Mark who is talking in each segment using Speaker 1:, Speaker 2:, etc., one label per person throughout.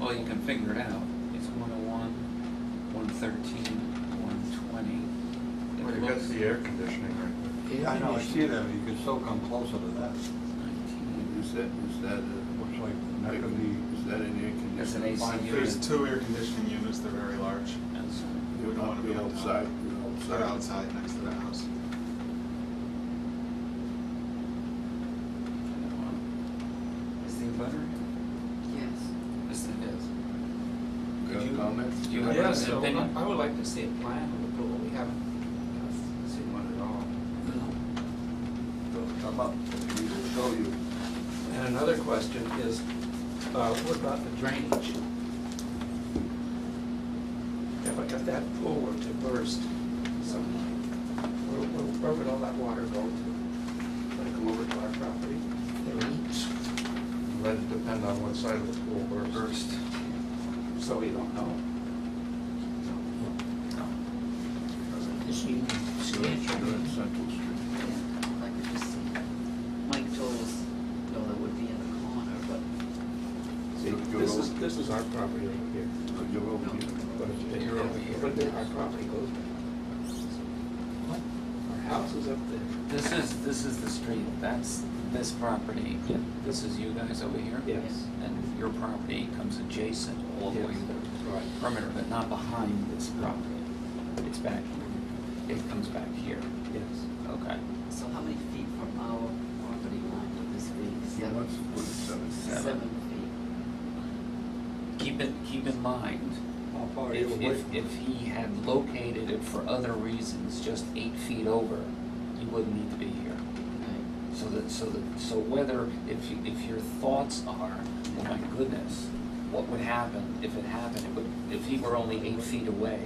Speaker 1: oh figured out, it's one oh one, one thirteen, one twenty.
Speaker 2: Well, you got the air conditioning right
Speaker 3: Yeah, I know, I see that, but you could still come closer to that.
Speaker 4: Is that, is that, uh,
Speaker 3: Looks like that
Speaker 4: like,
Speaker 3: could be,
Speaker 4: is that an air conditioner?
Speaker 1: That's an AC
Speaker 4: Fine.
Speaker 1: unit.
Speaker 5: There's two air conditioning units, they're very large.
Speaker 4: It would not be outside,
Speaker 5: They're
Speaker 4: outside.
Speaker 5: outside next to the house.
Speaker 1: Is the butter?
Speaker 6: Yes.
Speaker 1: Yes, it is.
Speaker 4: Got
Speaker 1: Could you-
Speaker 4: comments?
Speaker 1: Do you have
Speaker 2: uh,
Speaker 7: Yeah,
Speaker 1: an
Speaker 7: so
Speaker 1: opinion?
Speaker 7: I I would like to see a plan of the pool, we haven't uh, seen one at all.
Speaker 3: they'll come up, we will show you.
Speaker 7: And another question is, uh, what about the drainage? If, if that pool were to burst sometime, where, where where would all that water go to? Would it go over to our property?
Speaker 2: now. Let it depend on what side of the pool bursts.
Speaker 1: First.
Speaker 7: So we don't know.
Speaker 6: This union,
Speaker 4: So it's on Central Street.
Speaker 6: Yeah, like we just seen. Mike told us, no, that would be in the corner, but
Speaker 4: See, you're
Speaker 7: This is,
Speaker 4: over-
Speaker 7: this is our property over here.
Speaker 4: no, You're over here.
Speaker 7: But
Speaker 4: You're over here.
Speaker 7: But then our property goes back. Our house is up there.
Speaker 1: This is, this is the street, that's this property, this is you guys over here?
Speaker 7: Yes.
Speaker 1: And your property comes adjacent all the way to the
Speaker 7: Right.
Speaker 1: perimeter, but not behind this property. It's back, it comes back here.
Speaker 7: Yes.
Speaker 1: Okay.
Speaker 6: so how many feet from our property line would this be?
Speaker 4: He wants to put it seven.
Speaker 1: seven.
Speaker 6: Seven feet.
Speaker 1: Keep it, keep in mind,
Speaker 3: How far are you
Speaker 1: if,
Speaker 3: away
Speaker 1: if,
Speaker 3: from
Speaker 1: if he had located it for other reasons, just eight feet over, you wouldn't need to be here.
Speaker 6: Right.
Speaker 1: So that, so that, so whether, if, you- if your thoughts are, oh my goodness, what would happen if it happened? It would, if he were only eight feet away,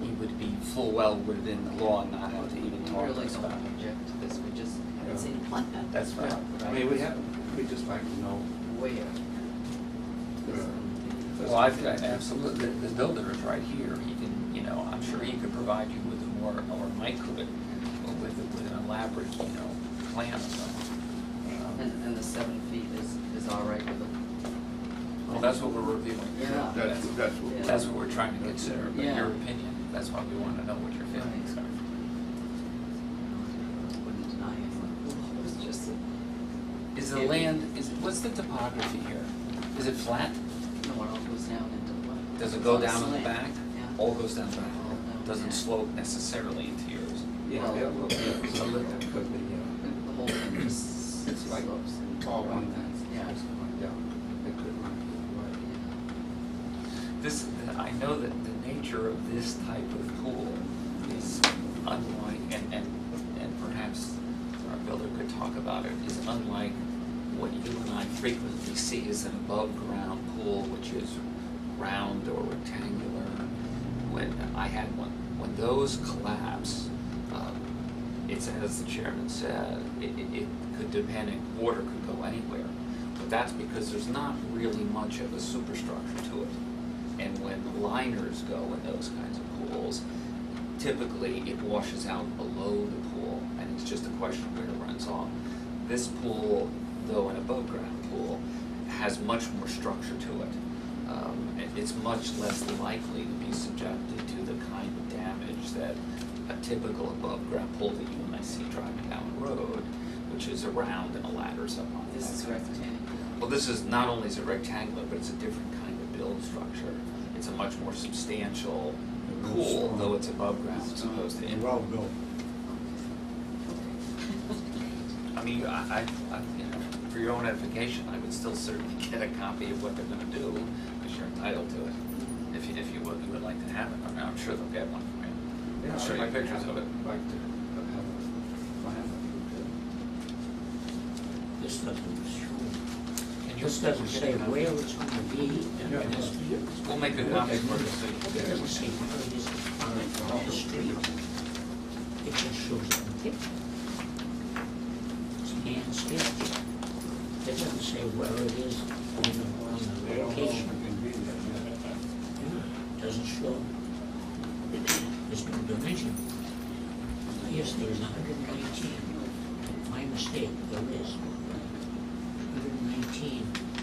Speaker 1: he would be full well within the law and not have to even
Speaker 6: We
Speaker 1: talk to
Speaker 6: really
Speaker 1: us about
Speaker 6: don't
Speaker 1: it.
Speaker 6: object to this, we just
Speaker 7: Yeah.
Speaker 6: haven't seen a plan.
Speaker 1: That's right.
Speaker 7: I mean, we have, we just like to know.
Speaker 6: Where?
Speaker 1: Well, I've, I- absolutely, the, the builder is right here, he can, you know, I'm sure he could provide you with a more, or Mike could, but with, with an elaborate, you know, plan of something. Um,
Speaker 6: And, and the seven feet is, is all right with it?
Speaker 1: Well, that's what we're reviewing.
Speaker 6: Yeah.
Speaker 4: That's, that's what. we're-
Speaker 1: That's what we're trying to consider, but
Speaker 6: Yeah.
Speaker 1: your opinion, that's why we wanna know what your feelings
Speaker 6: Right.
Speaker 1: are.
Speaker 6: Wouldn't deny it, it was just, a-
Speaker 1: Is the land, is, what's the topography here? Is it flat?
Speaker 6: no, it all goes down into the what?
Speaker 1: Does it go down in the
Speaker 6: Slant.
Speaker 1: back?
Speaker 6: Yeah. Oh,
Speaker 1: All goes down the back,
Speaker 6: All down
Speaker 1: doesn't
Speaker 6: back.
Speaker 1: slope necessarily into yours.
Speaker 7: Yeah, yeah, well, yeah, so that that could be, yeah,
Speaker 6: The whole thing just
Speaker 7: It's like
Speaker 6: slopes and
Speaker 7: all one
Speaker 6: runs,
Speaker 7: thing.
Speaker 6: Yeah.
Speaker 7: yeah, it could run either way.
Speaker 1: This, I know that the nature of this type of pool is unlike, and, and, and perhaps our builder could talk about it, is unlike what you and I frequently see as an above-ground pool, which is round or rectangular. When I had one, when those collapse, um, it's as the chairman said, it, it, it could depend, and water could go anywhere. But that's because there's not really much of a superstructure to it. And when liners go in those kinds of pools, typically it washes out below the pool, and it's just a question of where it runs off. This pool, though an above ground pool, has much more structure to it. Um, it- it's much less likely to be subjected to the kind of damage that a typical above ground pool that you might see driving down the road, which is a round and a ladder somewhere.
Speaker 6: This is rectangular.
Speaker 1: Well, this is, not only is it rectangular, but it's a different kind of build structure. It's a much more substantial pool, though it's above ground as opposed to
Speaker 3: it?
Speaker 1: in.
Speaker 3: Well built.
Speaker 1: I mean, I, I, I- you know, for your own edification, I would still certainly get a copy of what they're gonna do, because you're entitled to it. If you, if you would, you would like to have it, I mean, I'm sure they'll get one for you.
Speaker 7: Yeah,
Speaker 1: I'll show you
Speaker 7: I'd
Speaker 1: pictures of it.
Speaker 7: Like to have a plan if we could.
Speaker 8: This doesn't show,
Speaker 1: And
Speaker 8: this doesn't say where it's gonna be, and
Speaker 7: Yeah.
Speaker 8: this,
Speaker 1: We'll make a copy for you, so you
Speaker 8: it doesn't say where it is on the street. It just shows a picture. It's a man's picture. It doesn't say where it is, you know, on
Speaker 3: They
Speaker 8: the
Speaker 3: don't know if it
Speaker 8: location.
Speaker 3: can be there yet.
Speaker 8: Doesn't show. There's no dimension. Yes, there's hundred and nineteen. My mistake, there is. Hundred and nineteen